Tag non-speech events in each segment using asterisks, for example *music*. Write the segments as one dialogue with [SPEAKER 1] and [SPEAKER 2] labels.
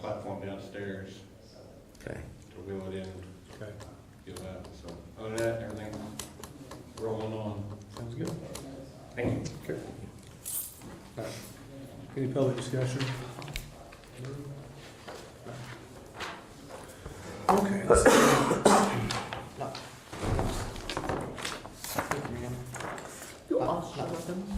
[SPEAKER 1] platform downstairs
[SPEAKER 2] Okay.
[SPEAKER 1] to wheel it in,
[SPEAKER 3] Okay,
[SPEAKER 1] get it out, so, other than that, everything rolling on.
[SPEAKER 3] sounds good.
[SPEAKER 1] Thank you.
[SPEAKER 3] Okay. All right. Any public discussion? Okay. let's-
[SPEAKER 4] You're awesome.
[SPEAKER 2] Didn't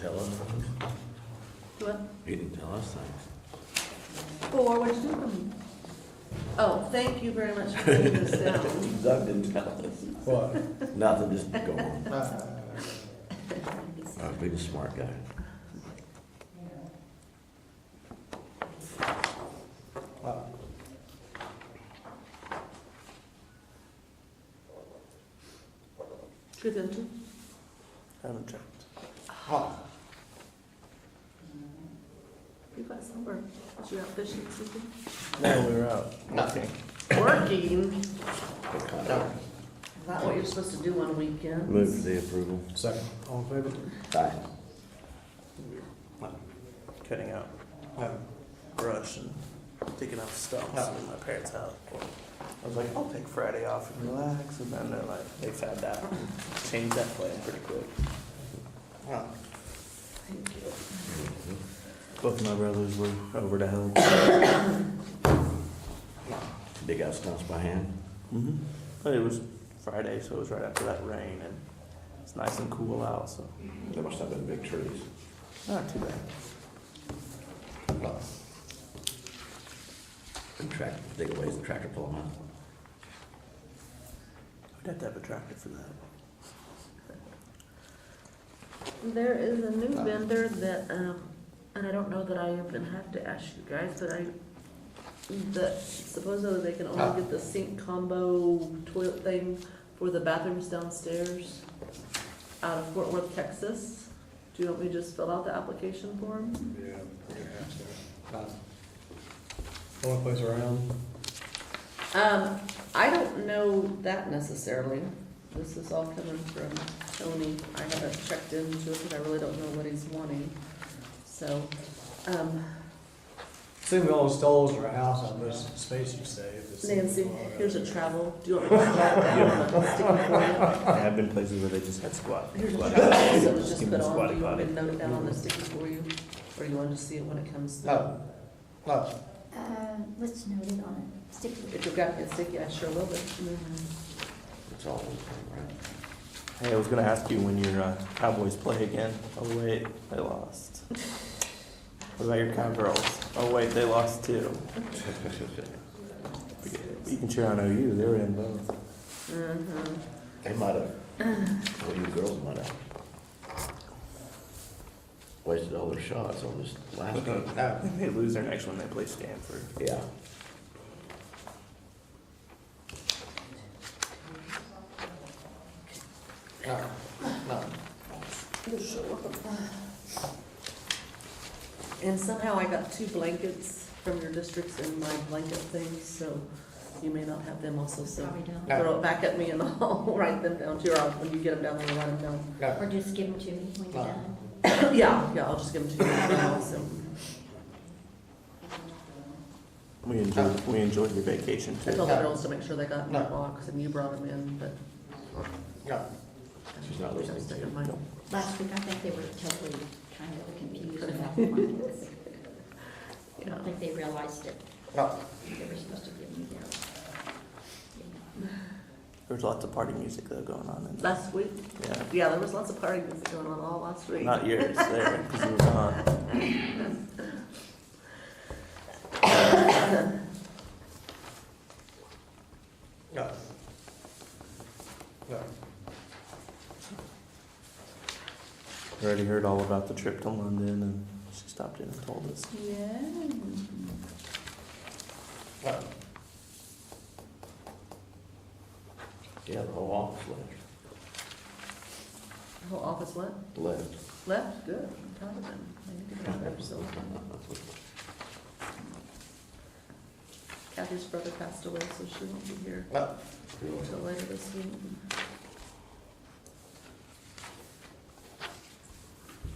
[SPEAKER 2] tell us things. He didn't tell us things.
[SPEAKER 4] Or what you doing? Oh, thank you very much for putting this *laughs* down.
[SPEAKER 2] Doug didn't tell us.
[SPEAKER 3] What?
[SPEAKER 2] Nothing, just go on.
[SPEAKER 3] Uh,
[SPEAKER 2] Uh, be the smart guy.
[SPEAKER 4] Good, don't you?
[SPEAKER 3] Haven't checked.
[SPEAKER 4] You got somewhere. Was you out fishing or something?
[SPEAKER 3] No, we were out.
[SPEAKER 5] Nothing.
[SPEAKER 4] Working.
[SPEAKER 5] No.
[SPEAKER 4] Not what you're supposed to do on weekends.
[SPEAKER 2] Move for the approval.
[SPEAKER 3] Second. All in favor?
[SPEAKER 2] Aye.
[SPEAKER 5] Cutting out
[SPEAKER 3] No.
[SPEAKER 5] brush and taking out stumps in my parents' house. I was like, I'll take Friday off and relax, and then they're like, they found out, and changed that plan pretty quick.
[SPEAKER 4] Thank you.
[SPEAKER 5] Both my brothers were over to help.
[SPEAKER 2] Dig out stumps by hand.
[SPEAKER 5] hmm But it was Friday, so it was right after that rain, and it's nice and cool out, so
[SPEAKER 2] There must have been big trees.
[SPEAKER 5] not too bad.
[SPEAKER 2] And track, dig away the tractor pull them out.
[SPEAKER 5] I'd have to have a tractor for that.
[SPEAKER 4] There is a new vendor that, um, and I don't know that I even have to ask you guys, but I, that supposedly they can only get the sink combo toilet thing for the bathrooms downstairs out of Fort Worth, Texas. Do you want me to just fill out the application form?
[SPEAKER 1] Yeah, perhaps, so.
[SPEAKER 3] Only place around.
[SPEAKER 4] Um, I don't know that necessarily. This is all coming from Tony. I haven't checked into it, because I really don't know what he's wanting. So, um,
[SPEAKER 3] See, we all stalls our house on this space you save. It's-
[SPEAKER 4] Nancy, here's a travel. Do you want me to write that down? Stick it
[SPEAKER 5] I have been places where they just had squat.
[SPEAKER 4] for you? Here's a
[SPEAKER 5] squat.
[SPEAKER 4] travel, so it's
[SPEAKER 5] Just
[SPEAKER 4] just
[SPEAKER 5] give
[SPEAKER 4] put
[SPEAKER 5] them a
[SPEAKER 4] on. Do
[SPEAKER 5] squatty
[SPEAKER 4] you want me
[SPEAKER 5] potty.
[SPEAKER 4] to note it down on the sticky for you? Or do you want to see it when it comes?
[SPEAKER 3] No, no.
[SPEAKER 6] Uh, what's noted on it? Sticky.
[SPEAKER 4] If you've got it sticky, I sure will, but.
[SPEAKER 2] It's all one thing, right?
[SPEAKER 5] Hey, I was gonna ask you when your uh, Cowboys play again. Oh wait, they lost. What about your Cowgirls? Oh wait, they lost too. You can cheer on OU. They were in both.
[SPEAKER 4] Mhm.
[SPEAKER 2] They might have, well, you girls might have wasted all their shots on this last game.
[SPEAKER 5] They lose their next one. They play Stanford.
[SPEAKER 2] Yeah.
[SPEAKER 4] You're so welcome. And somehow I got two blankets from your districts in my blanket thing, so you may not have them also, so.
[SPEAKER 6] Probably don't.
[SPEAKER 4] Throw it back at me and *laughs* I'll write them down too, or I'll- when you get them down, I'll write them down. *coughs*
[SPEAKER 6] Or just give them to me when you're done.
[SPEAKER 4] Yeah, yeah, I'll just give them to you now, so.
[SPEAKER 5] We enjoyed. We enjoyed your vacation
[SPEAKER 4] I told
[SPEAKER 5] too.
[SPEAKER 4] the girls to make sure they got in the box, and you brought them in, but.
[SPEAKER 2] She's not
[SPEAKER 4] I think I
[SPEAKER 2] listening
[SPEAKER 4] stuck
[SPEAKER 2] to you.
[SPEAKER 4] in mine.
[SPEAKER 6] Last week, I think they were totally kind of confused about the blankets. I
[SPEAKER 4] Yeah.
[SPEAKER 6] don't think they realized it.
[SPEAKER 5] No.
[SPEAKER 6] They were supposed to give me their.
[SPEAKER 5] There's lots of party music though going on in there.
[SPEAKER 4] Last week,
[SPEAKER 5] Yeah,
[SPEAKER 4] yeah, there was lots of party music going on all last week.
[SPEAKER 5] not yours there because you were gone.
[SPEAKER 3] No. No.
[SPEAKER 5] We Already heard all about the trip to London and she stopped in and told us.
[SPEAKER 4] Yeah.
[SPEAKER 3] No.
[SPEAKER 2] Yeah, the whole office left.
[SPEAKER 4] The Whole office what?
[SPEAKER 2] Left.
[SPEAKER 4] Left, good, I'm proud of them. They need to be out there, so. Kathy's brother passed away, so she won't be here
[SPEAKER 3] No.
[SPEAKER 4] until later this week.